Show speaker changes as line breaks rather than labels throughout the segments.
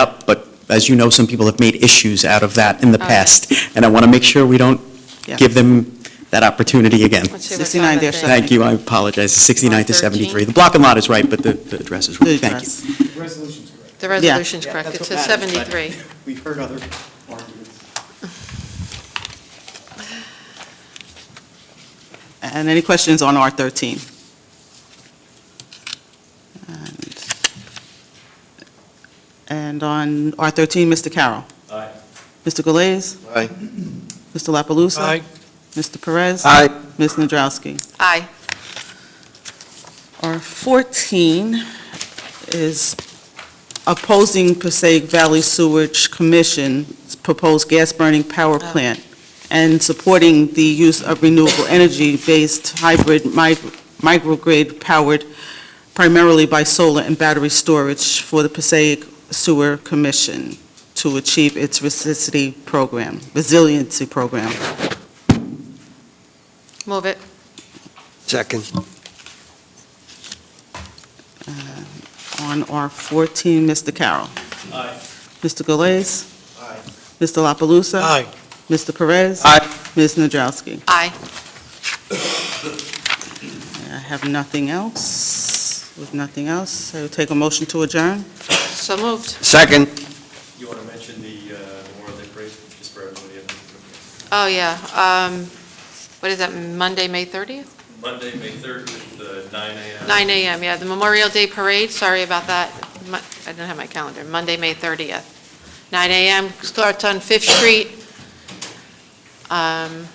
up, but as you know, some people have made issues out of that in the past, and I want to make sure we don't
Oh, Yeah.
give them that opportunity again.
Let's see what
69
time it
dash
is.
Thank you, I apologize, It's 69 to 73. The block and lot is right, but the the address is wrong,
The
thank you.
address.
Resolution's correct.
The resolution's correct, it says 73.
We've heard other arguments.
And any questions on R13? And- And on R13, Mr. Carroll?
Aye.
Mr. Galais?
Aye.
Mr. La Palusa? Mr. Perez?
Aye.
Ms. Nadrowski?
Aye.
R14 is opposing Passaic Valley Sewage Commission's proposed gas-burning power plant and supporting the use of renewable energy-based hybrid mi- microgrid-powered primarily by solar and battery storage for the Passaic Sewer Commission to achieve its resiliency program, resiliency program.
Move it.
Second.
On R14, Mr. Carroll.
Aye.
Mr. Galais.
Aye.
Mr. La Palusa? Mr. Perez?
Aye.
Ms. Nadrowski?
Aye.
I have nothing else. With nothing else, I will take a motion to adjourn.
So moved.
Second.
You want to mention the uh, Memorial Day Parade, just for everybody? in the-
Oh, yeah. Um, What is that, Monday, May 30th?
Monday, May 30th, uh, 9 AM.
9 a.m., yeah, the Memorial Day Parade, sorry about that. Mo- I didn't have my calendar. Monday, May 30th, 9 a.m., starts on Fifth Street. Um,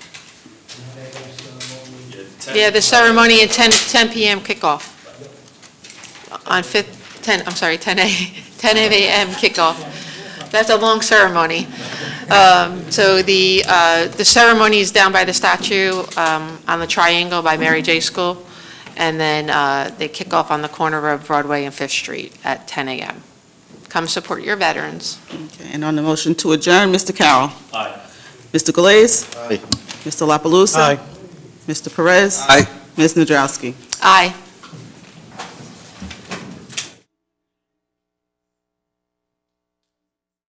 Yeah, 10.
Yeah, the ceremony at 10, 10 p.m. kickoff. On 5th, 10, I'm sorry, 10 a, 10 a.m. kickoff. That's a long ceremony. Um, So the, uh, the ceremony is down by the statue um, on the triangle by Mary J. School, and then uh, they kick off on the corner of Broadway and Fifth Street at 10 a.m. Come support your veterans.
Okay, And on the motion to adjourn, Mr. Carroll.
Aye.
Mr. Galais.
Aye.
Mr. La Palusa? Mr. Perez?
Aye.
Ms. Nadrowski?
Aye.